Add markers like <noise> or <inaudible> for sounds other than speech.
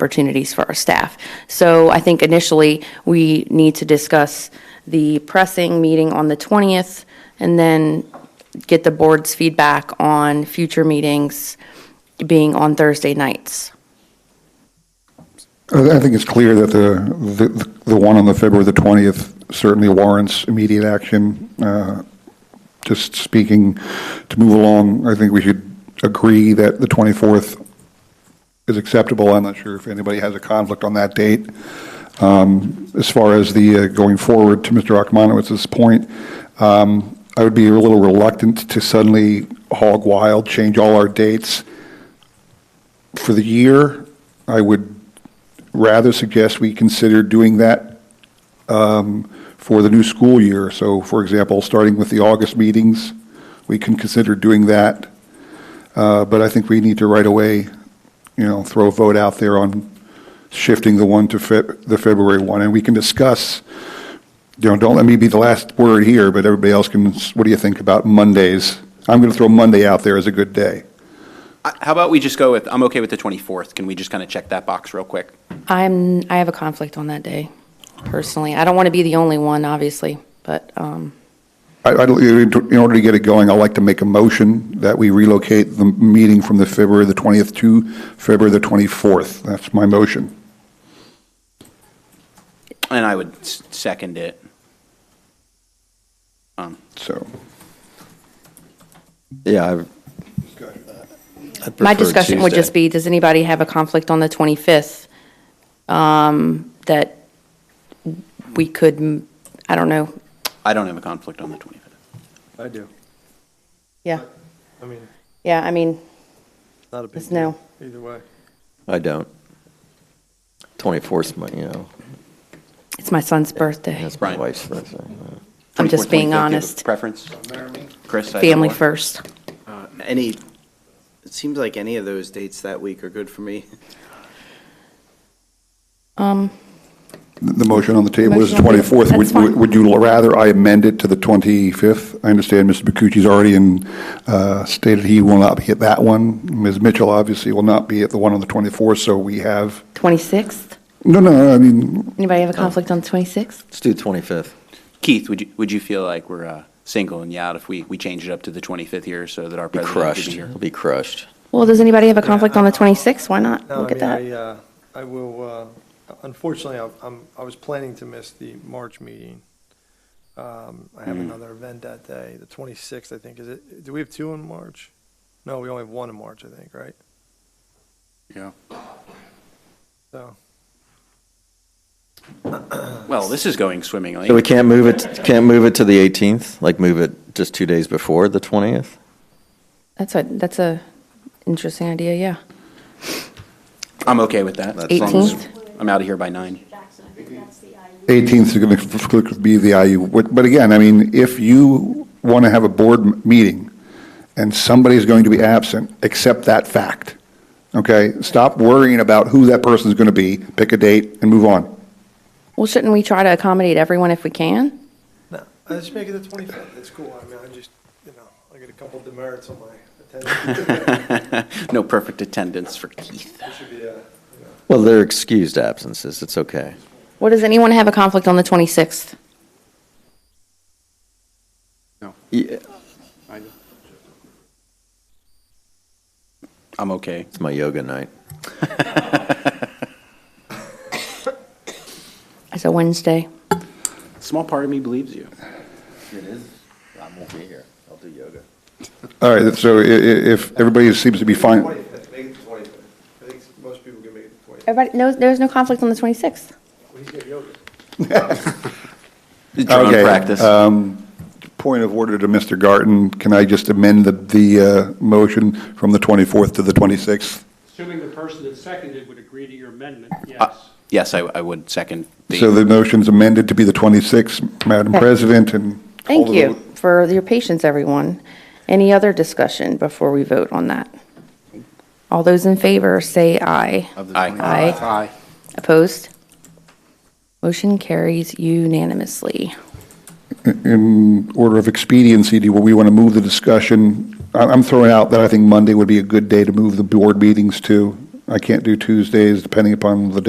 opportunities for our staff. So I think initially, we need to discuss the pressing meeting on the 20th, and then get the board's feedback on future meetings being on Thursday nights. I I think it's clear that the, the- the one on the February the 20th certainly warrants immediate action. Uh, Just speaking, to move along, I think we should agree that the 24th is acceptable. I'm not sure if anybody has a conflict on that date. Um, As far as the, uh, going forward to Mr. Akmanowitz's point, um, I would be a little reluctant to suddenly hog wild, change all our dates for the year. I would rather suggest we consider doing that um, for the new school year. So, for example, starting with the August meetings, we can consider doing that. Uh, But I think we need to right away, you know, throw a vote out there on shifting the one to Feb- the February one. And we can discuss, you know, don't let me be the last word here, but everybody else can, s- what do you think about Mondays? I'm going to throw Monday out there as a good day. I- How about we just go with, I'm okay with the 24th. Can we just kind of check that box real quick? I'm, I have a conflict on that day, personally. I don't want to be the only one, obviously, but, um, I, I, in order to get it going, I'd like to make a motion that we relocate the meeting from the February the 20th to February the 24th. That's my motion. And I would s- second it. So, Yeah, I. my discussion would just be, does anybody have a conflict on the 25th? um, That we could, m- I don't know, I don't have a conflict on the 25th. I do. yeah, I mean, yeah, I mean, not a big It's no. deal either way. I don't. 24th, you know, it's my son's birthday. that's my Brian. wife's birthday. yeah. I'm just 24th, being 25th, do you have a honest. Preference? Chris? I have Family one. first. Uh, Any, it seems like any of those dates that week are good for me. the the motion on the table is the Motion on the- 24th. Would- that's fine. would- Would you rather I amend it to the 25th? I understand Mr. Bakucci's already in, uh, stated he will not be at that one. Ms. Mitchell obviously will not be at the one on the 24th, so we have, 26th? no, no, I mean, Anybody have a conflict on the 26th? Let's do 25th. Keith, would you, would you feel like we're uh, singling you out if we, we change it up to the 25th here so that our Be president could crushed. be here? It'll be crushed. Well, does anybody have a conflict on the I- 26th? Why not? No, Look I at mean, I, that. uh, I will, uh, unfortunately, I- I'm, I was planning to miss the March meeting. Um, I Hmm. have another event that day, the 26th, I think, is it, do we have two in March? No, we only have one in March, I think, right? Yeah. So, Well, this is going swimmingly. So we can't move it, can't move it to the 18th? Like move it just two days before the 20th? That's a, that's a interesting idea, yeah. I'm okay with that. as long as 18th? I'm out of here by nine. <laughs> Jackson, I think that's the IU. 18th is going to be the IU. But but again, I mean, if you want to have a board m- meeting and somebody's going to be absent, accept that fact, okay? Stop worrying about who that person's going to be, pick a date and move on. Well, shouldn't we try to accommodate everyone if we can? no, I just make it the 25th, it's cool, I mean, I just, you know, I got a couple demerits on my <laughs> attendance. No perfect attendance for Keith. It should be, uh, Well, they're excused absences. It's okay. What, does anyone have a conflict on the 26th? Yeah, I'm okay. It's my yoga night. It's a Wednesday. Small part of me believes you. It is. I won't be here. I'll do yoga. All right, so i- i- if everybody seems to be fine, 25th, make it the 25th. I think most people can make it the 25th. Everybody, no, there's no conflict on the 26th? Well, he's got yoga. Drone Okay, practice. um, point of order to Mr. Garten, can I just amend the, the uh, motion from the 24th to the 26th? Assuming the person that seconded would agree to your amendment, Uh, yes. Yes, I, I would second the. So the motion's amended to be the 26th, Madam Okay. President, and. Thank all you the- for your patience, everyone. Any other discussion before we vote on that? All those in favor, say aye. Aye. Aye. Opposed? Motion carries unanimously. in order of expediency, do we want to move the discussion? I- I'm throwing out that I think Monday would be a good day to move the board meetings to, I can't do Tuesdays, depending upon the day.